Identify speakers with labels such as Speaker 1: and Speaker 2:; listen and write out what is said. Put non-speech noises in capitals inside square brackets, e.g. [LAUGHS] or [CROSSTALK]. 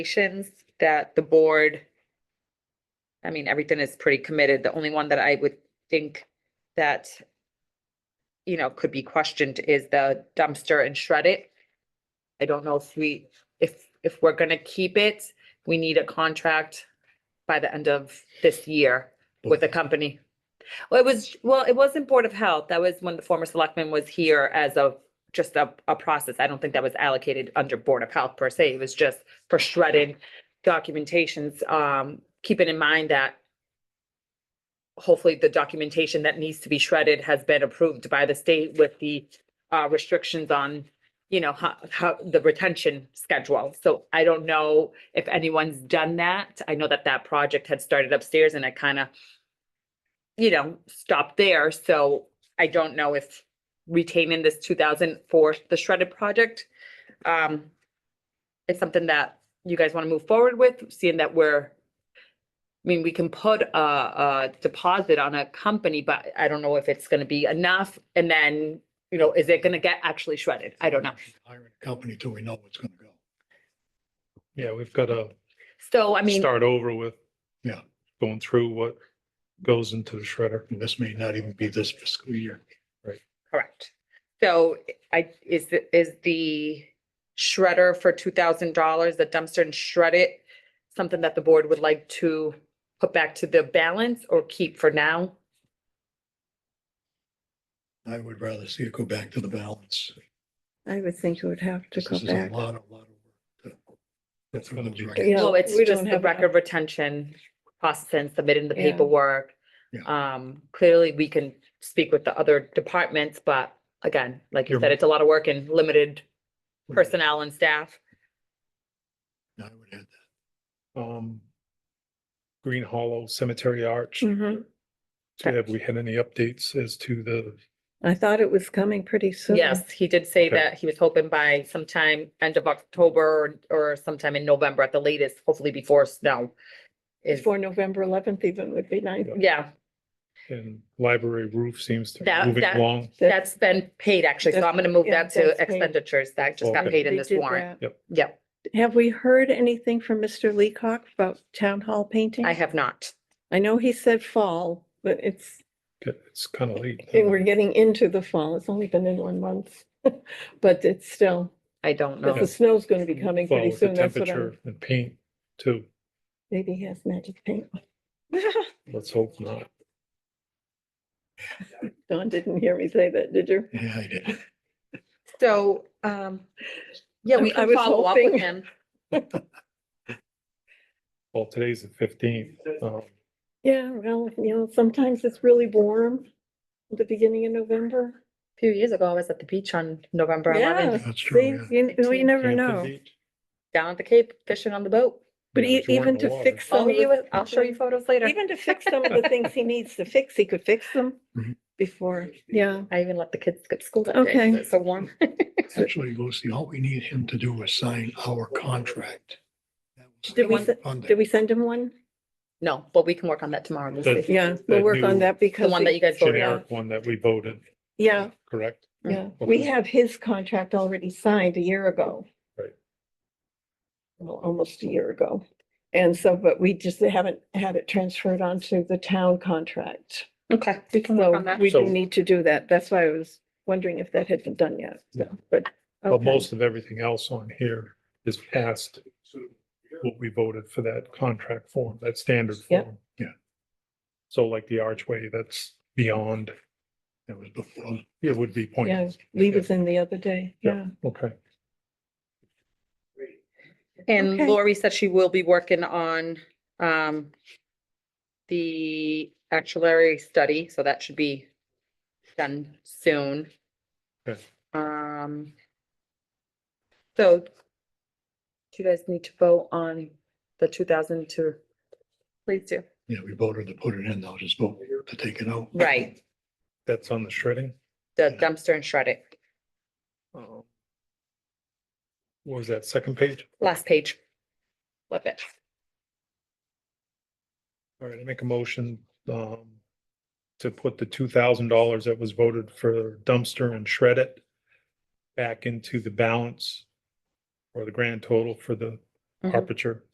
Speaker 1: recommendations that the board, I mean, everything is pretty committed. The only one that I would think that, you know, could be questioned is the dumpster and shred it. I don't know if we, if, if we're gonna keep it, we need a contract by the end of this year with a company. Well, it was, well, it wasn't Board of Health. That was when the former selectman was here as a, just a, a process. I don't think that was allocated under Board of Health per se. It was just for shredding documentations, um, keeping in mind that hopefully the documentation that needs to be shredded has been approved by the state with the uh, restrictions on, you know, how, how, the retention schedule. So I don't know if anyone's done that. I know that that project had started upstairs and I kind of, you know, stopped there. So I don't know if retaining this two thousand for the shredded project, um, it's something that you guys want to move forward with, seeing that we're, I mean, we can put a, a deposit on a company, but I don't know if it's gonna be enough. And then, you know, is it gonna get actually shredded? I don't know.
Speaker 2: Hire a company till we know what's gonna go.
Speaker 3: Yeah, we've got to
Speaker 1: So, I mean,
Speaker 3: start over with.
Speaker 2: Yeah.
Speaker 3: Going through what goes into the shredder.
Speaker 2: And this may not even be this fiscal year.
Speaker 1: correct. So I, is, the- is the shredder for two thousand dollars, the dumpster and shred it, something that the board would like to put back to the balance or keep for now?
Speaker 2: I would rather see it go back to the balance.
Speaker 4: I would think it would have to
Speaker 2: This
Speaker 4: go
Speaker 2: is a
Speaker 4: back.
Speaker 2: lot, a lot of work. That's
Speaker 3: gonna be-
Speaker 4: Yeah,
Speaker 1: Well, it's
Speaker 4: we
Speaker 1: just
Speaker 4: don't
Speaker 1: the
Speaker 4: have
Speaker 1: record retention process and submitting the
Speaker 4: Yeah.
Speaker 1: paperwork.
Speaker 2: Yeah.
Speaker 1: Um, clearly, we can speak with the other departments, but again, like you
Speaker 3: You're
Speaker 1: said,
Speaker 3: right.
Speaker 1: it's a lot of work and limited personnel and staff.
Speaker 2: I would add that.
Speaker 3: Um. Green Hollow Cemetery Arch.
Speaker 1: Mm-hmm.
Speaker 4: Mhm.
Speaker 3: Have we had any updates as to the,
Speaker 4: I thought it was coming pretty soon.
Speaker 1: Yes, he did say
Speaker 3: Okay.
Speaker 1: that he was hoping by sometime end of October or or sometime in November at the latest, hopefully before snow. Is,
Speaker 4: Before November eleventh even would be nice.
Speaker 1: yeah,
Speaker 3: and library roof seems to be
Speaker 1: That-
Speaker 3: moving
Speaker 1: that-
Speaker 3: along?
Speaker 1: that's been paid actually, so I'm gonna move that
Speaker 4: That's- yeah,
Speaker 1: to
Speaker 4: that's paid.
Speaker 1: expenditures that just got
Speaker 3: Okay.
Speaker 1: paid in
Speaker 4: They
Speaker 1: this
Speaker 4: did
Speaker 1: warrant.
Speaker 4: that.
Speaker 1: Yep,
Speaker 4: Have we heard anything from Mr. Leacock about town hall painting?
Speaker 1: I have not.
Speaker 4: I know he said fall, but it's,
Speaker 3: It's kind of late.
Speaker 4: we're
Speaker 2: Uh-huh.
Speaker 4: getting into the fall. It's only been in one month. [LAUGHS] But it's still,
Speaker 1: I don't know.
Speaker 4: but the snow's gonna be coming
Speaker 3: Well,
Speaker 4: pretty
Speaker 3: with the
Speaker 4: soon. That's what I'm,
Speaker 3: Temperature and paint too.
Speaker 4: maybe he has magic paint.
Speaker 3: Let's hope not.
Speaker 4: [LAUGHS] Don didn't hear me say that, did you?
Speaker 2: Yeah, I did.
Speaker 4: [LAUGHS]
Speaker 1: So, um, yeah, we
Speaker 4: I- I
Speaker 1: can
Speaker 4: was
Speaker 1: follow up with
Speaker 4: hoping.
Speaker 1: him.
Speaker 3: Well, today's the fifteenth. Um,
Speaker 4: Yeah, well, you know, sometimes it's really warm at the beginning of November.
Speaker 1: [LAUGHS] A few years ago, I was at the beach on November
Speaker 4: Yeah,
Speaker 1: eleventh,
Speaker 2: That's
Speaker 4: see,
Speaker 2: true, yeah.
Speaker 4: you, n- we never
Speaker 3: Hampton
Speaker 4: know.
Speaker 3: Beach.
Speaker 1: down at the Cape, fishing on the boat.
Speaker 4: But
Speaker 3: Yeah,
Speaker 4: e-
Speaker 3: if you weren't in
Speaker 4: even
Speaker 3: the
Speaker 4: to
Speaker 3: water.
Speaker 4: fix
Speaker 1: I'll
Speaker 4: some of
Speaker 1: show you,
Speaker 4: the.
Speaker 1: I'll show you photos later.
Speaker 4: Even to fix some of the things he needs to fix, he could fix
Speaker 3: [LAUGHS]
Speaker 4: them
Speaker 3: Mm-hmm.
Speaker 2: Mhm.
Speaker 4: before, yeah.
Speaker 1: I even let the kids skip school that day. 'cause
Speaker 4: Okay.
Speaker 1: It's so warm.
Speaker 2: Actually, Lucy, all we need him to do is sign our contract. That was
Speaker 4: Did we
Speaker 2: on
Speaker 4: se-
Speaker 2: Monday.
Speaker 4: Did we send him one?
Speaker 1: No, but we can work on that tomorrow. We'll
Speaker 3: Good.
Speaker 1: see.
Speaker 4: Yeah, we'll
Speaker 3: That
Speaker 4: work on
Speaker 3: new-
Speaker 4: that because.
Speaker 1: The one that
Speaker 4: he-
Speaker 1: you guys voted on.
Speaker 3: Generic one that we voted,
Speaker 4: Yeah,
Speaker 3: correct?
Speaker 1: Mm.
Speaker 4: yeah. We
Speaker 3: Okay.
Speaker 4: have his contract already signed a year ago.
Speaker 3: Right.
Speaker 4: Well, almost a year ago. And so, but we just haven't had it transferred onto the town contract.
Speaker 1: Okay, we can work on
Speaker 4: So
Speaker 1: that.
Speaker 4: we
Speaker 3: So-
Speaker 4: do need to do that. That's why I was wondering if that had been done yet.
Speaker 3: Yeah.
Speaker 4: But.
Speaker 3: But
Speaker 4: okay.
Speaker 3: most of everything else on here is past what we voted for that contract form, that standard
Speaker 4: Yep.
Speaker 3: form.
Speaker 2: Yeah.
Speaker 3: So like the archway, that's beyond,
Speaker 2: That was before.
Speaker 3: it would be
Speaker 4: Yeah,
Speaker 3: pointless.
Speaker 4: Lee was in the other day. Yeah.
Speaker 3: Okay,
Speaker 1: And
Speaker 4: Okay.
Speaker 1: Lori said she will be working on, um, the actuary study, so that should be done soon.
Speaker 3: Good.
Speaker 1: Um, so do you guys need to vote on the two thousand to? Please do.
Speaker 2: Yeah, we voted to put it in, now just vote to take it out.
Speaker 1: Right,
Speaker 3: that's on the shredding.
Speaker 1: the dumpster and shred it.
Speaker 3: Um, What was that, second page?
Speaker 1: Last page. Flip it.
Speaker 3: All right, I make a motion, um, to put the two thousand dollars that was voted for dumpster and shred it back into the balance or the grand total for the
Speaker 1: Mhm.
Speaker 4: Mm-hmm.
Speaker 3: aperture.